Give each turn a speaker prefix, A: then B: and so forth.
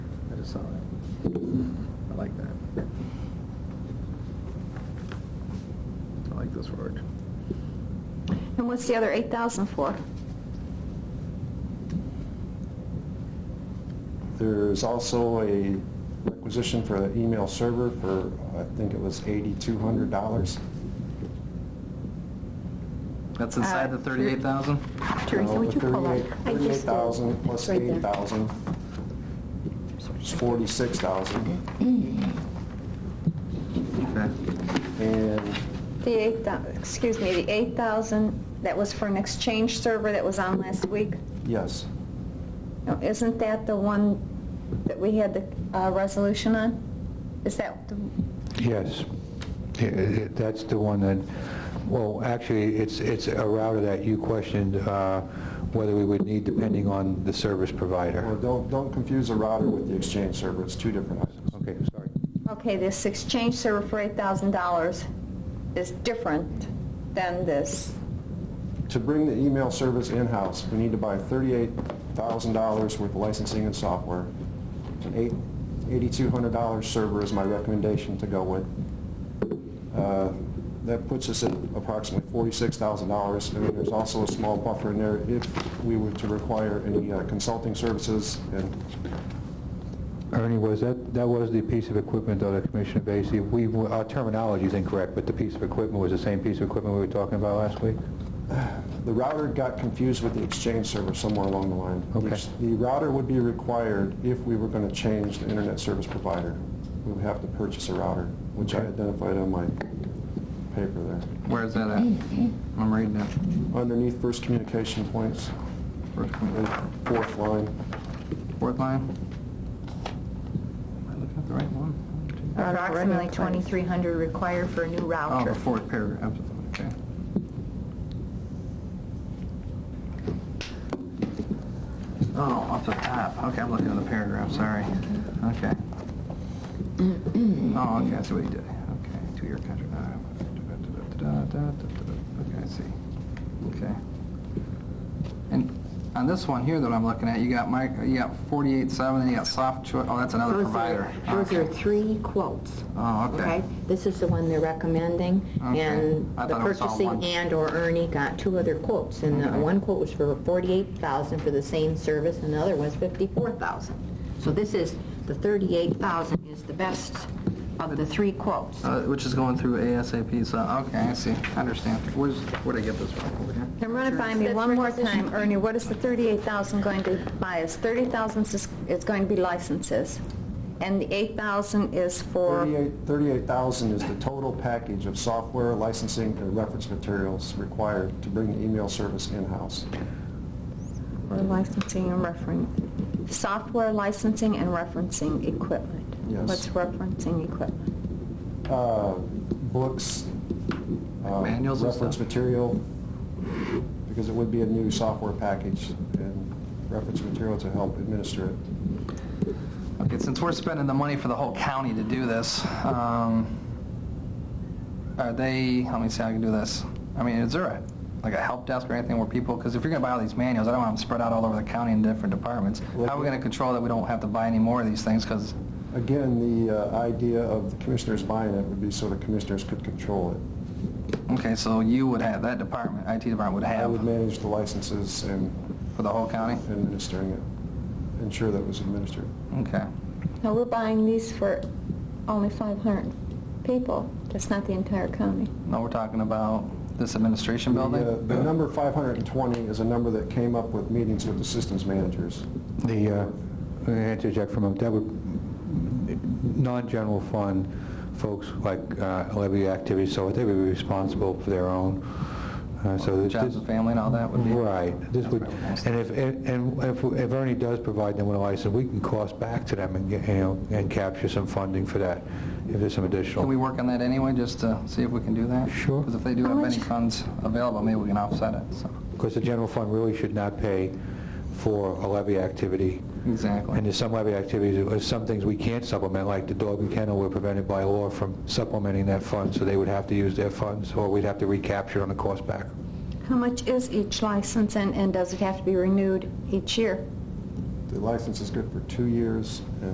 A: just saw that. I like that. I like this word.
B: And what's the other 8,000 for?
C: There's also a requisition for the email server for, I think it was $8,200.
A: That's inside the
B: Uh, sure.
A: 38,000?
B: Teresa,
C: Uh,
B: would you pull up?
C: $38,000
B: I just-
C: $38,000 plus
B: Right there.
C: $8,000 is $46,000.
A: Okay.
C: And
B: The 8,000, excuse me, the 8,000 that was for an exchange server that was on last week?
C: yes,
B: Now, Isn't that the one that we had the uh, resolution on? Is that, the-
D: Yes. I- I- That's the one that, well, actually, it's, it's a router that you questioned uh, whether we would need depending on the service
C: well,
D: provider.
C: don't, don't confuse a router with the Exchange server, it's two different items.
D: Okay, sorry.
B: okay, this exchange server for $8,000 is different than this.
C: To bring the email service in-house, we need to buy $38,000 worth of licensing and software. An eight- $8,200 server is my recommendation to go with. Uh, That puts us at approximately $46,000. And then there's also a small buffer in there if we were to require any uh, consulting services. And
D: Ernie, was that, that was the piece of equipment, though, that Commissioner Vacy, we, our terminology is incorrect, but the piece of equipment was the same piece of equipment we were talking about last week?
C: The router got confused with the Exchange server somewhere along the line.
D: Okay.
C: The router would be required if we were going to change the internet service provider. We would have to purchase a router, which I
D: Okay.
C: identified on my paper there.
A: Where is that at? I'm reading it.
C: Underneath first communication points,
A: First one.
C: and fourth line.
A: Fourth line? Am I looking at the right one?
B: Approximately 2,300 required for a new
A: Oh,
B: router.
A: the fourth paragraph, okay. Oh, off the top, okay, I'm looking at the paragraph, sorry. Okay. Oh, okay, I see what you did, okay, two-year contract. uh, da-da-da-da-da-da-da-da. Okay, I see, okay. And on this one here that I'm looking at, you got Mike, you got 48.7, and you got soft choice, oh, that's another
E: Those are-
A: provider.
E: Those
A: Okay.
E: are three quotes.
A: Oh, okay.
E: This is the one they're recommending,
A: Okay.
E: and
A: I
E: the
A: thought it was all one.
E: purchasing and/or Ernie got two other quotes. And the
A: Okay.
E: one quote was for 48000 for the same service, and the other was 54000 So this is, the 38000 is the best of the three quotes.
A: Uh, Which is going through ASAP, so, okay, I see, I understand. Where's, where'd I get this from, over here?
B: And run it by me
E: That's
B: one more
E: requisition.
B: time, Ernie, what is the 38,000 going to buy us? 30,000 is is going to be licenses, and the 8,000 is for...
C: 38 $38,000 is the total package of software, licensing, and reference materials required to bring the email service in-house.
B: For licensing and referencing, software licensing and referencing equipment.
C: Yes.
B: What's referencing equipment?
C: Uh, Books, um,
A: Manuals and
C: reference
A: stuff?
C: material, because it would be a new software package and reference material to help administer it.
A: Okay, since we're spending the money for the whole county to do this, um, are they, let me see how I can do this. I mean, is there a, like a help desk or anything where people, because if you're gonna buy all these manuals, I don't want them spread out all over the county in different departments.
C: Well,
A: How are we gonna control that we don't have to buy any more of these things, because,
C: Again, the uh, idea of the commissioners buying it would be so the commissioners could control it.
A: okay, so you would have, that department, IT department would
C: I would
A: have
C: manage the licenses and
A: for the whole county?
C: administering it, ensure that it was administered.
A: Okay,
B: Now, we're buying these for only 500 people. That's not the entire county.
A: now we're talking about this administration
C: The,
A: building?
C: uh, The number 520 is a number that came up with meetings with the systems managers.
D: The, uh, let me interject from, a- that would, non-general fund folks like uh, levy activities, so they would be responsible for their own, uh, so... this-
A: Jobs and family and all that would be?
D: Right, this would,
A: That's
D: and if, and and if if Ernie does provide them with a license, we can cost back to them and, get, you know, and capture some funding for that, if there's some
A: Can we
D: additional.
A: work on that anyway, just to see if we can do that?
D: Sure.
A: Because if they do
B: How
A: have any
B: much-
A: funds available, maybe we can offset it, so.
D: Because the general fund really should not pay for a levy activity. And
A: Exactly.
D: there's some levy activities, there's some things we can't supplement, like the dog and kennel, we're prevented by law from supplementing that fund, so they would have to use their funds, or we'd have to recapture on the cost back.
B: How much is each license, and and does it have to be renewed each year?
C: The license is good for two years, and